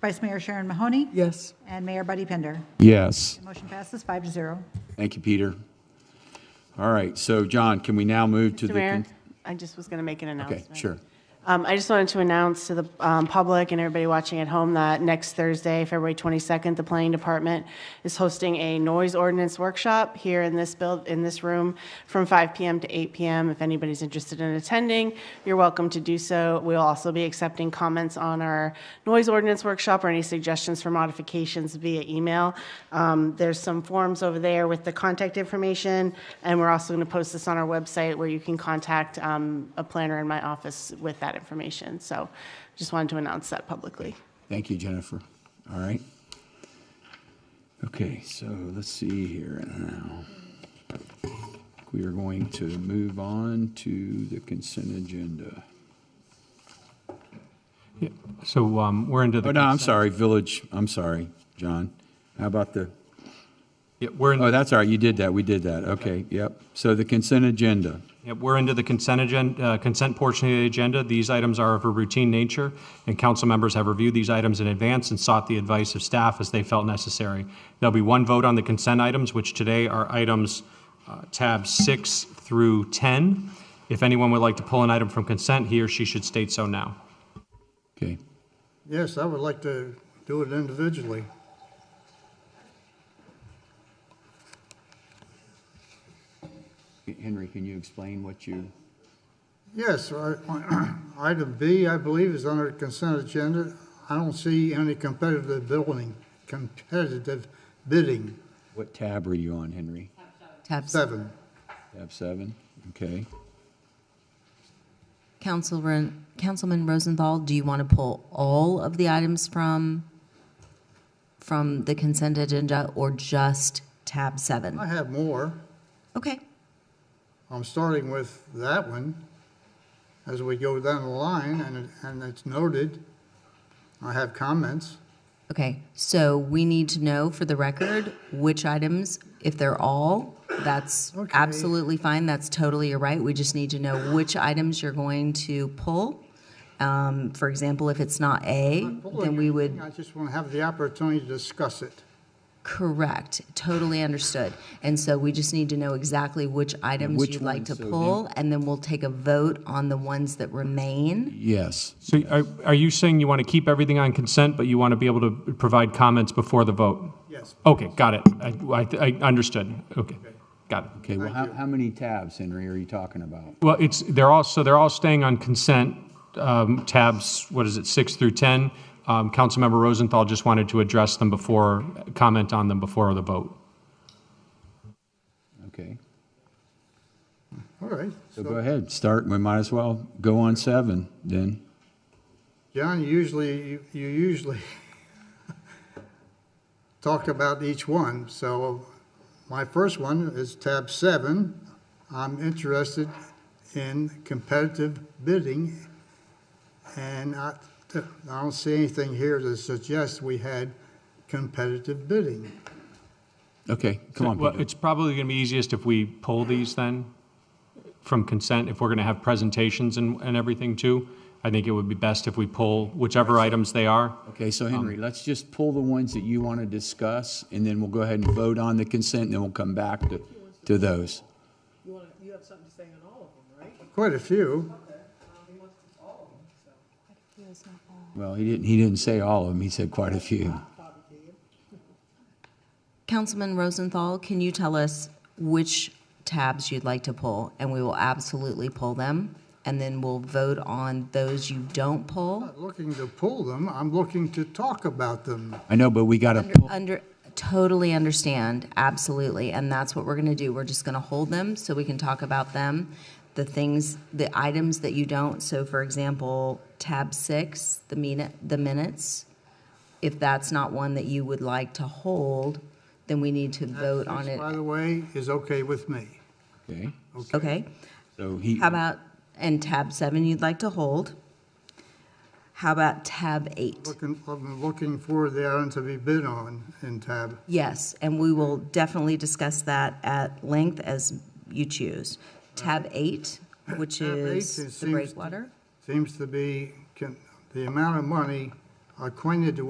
Vice Mayor Sharon Mahoney, Yes. and Mayor Buddy Pinder. Yes. Motion passes five to zero. Thank you, Peter. All right, so John, can we now move to Mr. the? Mayor, con- I just was going to make an Okay, announcement. sure. Um, I just wanted to announce to the um, public and everybody watching at home that next Thursday, February 22nd, the Planning Department is hosting a noise ordinance workshop here in this build, in this room, from 5 PM to 8 PM. If anybody's interested in attending, you're welcome to do so. We'll also be accepting comments on our noise ordinance workshop or any suggestions for modifications via email. Um, There's some forms over there with the contact information, and we're also going to post this on our website where you can contact um, a planner in my office with that information. So just wanted to announce that publicly. Thank you, Jennifer. All right. Okay, so let's see here now. We are going to move on to the consent agenda. Yeah, So um, we're into the. Oh, no, I'm consent- sorry, village, I'm sorry, John. How about the, Yeah, we're, oh, in- that's all right, you did that, we did that, okay, yep. So the consent agenda. yeah, we're into the consent agenda, consent portion of the agenda. These items are of a routine nature, and council members have reviewed these items in advance and sought the advice of staff as they felt necessary. There'll be one vote on the consent items, which today are items uh, tab six through 10. If anyone would like to pull an item from consent, he or she should state so now. Okay, Yes, I would like to do it individually. Henry, can you explain what you? Yes, I- item B, I believe, is under consent agenda. I don't see any competitive building, competitive bidding, What tab are you on, Henry? Tabs. seven. Tab seven? Okay. Councilman, Councilman Rosenthal, do you want to pull all of the items from, from the consent agenda or just tab seven? I have more. Okay, I'm starting with that one as we go down the line, and, it- and it's noted. I have comments. okay. So we need to know for the record which items, if they're all, that's Okay. absolutely fine. That's totally your right. We just need to know which items you're going to pull. Um, For example, if it's not A, then we would. I just want to have the opportunity to discuss it. Correct, totally understood. And so we just need to know exactly which items which you'd like ones, to so then- pull, and then we'll take a vote on the ones that remain. Yes. So are- are you saying you want to keep everything on consent, but you want to be able to provide comments before the vote? Yes. Okay, got it. I, I- I understood. Okay, got it. Okay, well, how, how many tabs, Henry, are you talking about? Well, it's, they're all, so they're all staying on consent um, tabs, what is it, six through 10? Um, Councilmember Rosenthal just wanted to address them before, comment on them before the vote. Okay, All right. so go ahead, start, we might as well go on seven then. John, usually, you you usually talk about each one, so my first one is tab seven. I'm interested in competitive bidding, and I, I don't see anything here to suggest we had competitive bidding. Okay, come on, Well, Peter. it's probably going to be easiest if we pull these then from consent, if we're going to have presentations and, and everything too. I think it would be best if we pull whichever items they are. Okay, so Henry, let's just pull the ones that you want to discuss, and then we'll go ahead and vote on the consent, and then we'll come back to, to those. Quite a few. Well, he didn't, he didn't say all of them, he said quite a few. Councilman Rosenthal, can you tell us which tabs you'd like to pull? And we will absolutely pull them, and then we'll vote on those you don't pull. Not looking to pull them, I'm looking to talk about them. I know, but we got to pull, Under, totally understand, absolutely, and that's what we're gonna do. We're just gonna hold them so we can talk about them. The things, the items that you don't, so for example, tab six, the min, the minutes. If that's not one that you would like to hold, then we need to vote on By it. the way, is okay with me. okay? Okay, So he, how about, and tab seven you'd like to hold? How about tab eight? Looking, I'm looking for the item to be bid on in tab Yes, and we will definitely discuss that at length as you choose. Tab eight, which Tab eight, it is seems the to- breakwater. seems to be, can, the amount of money acquainted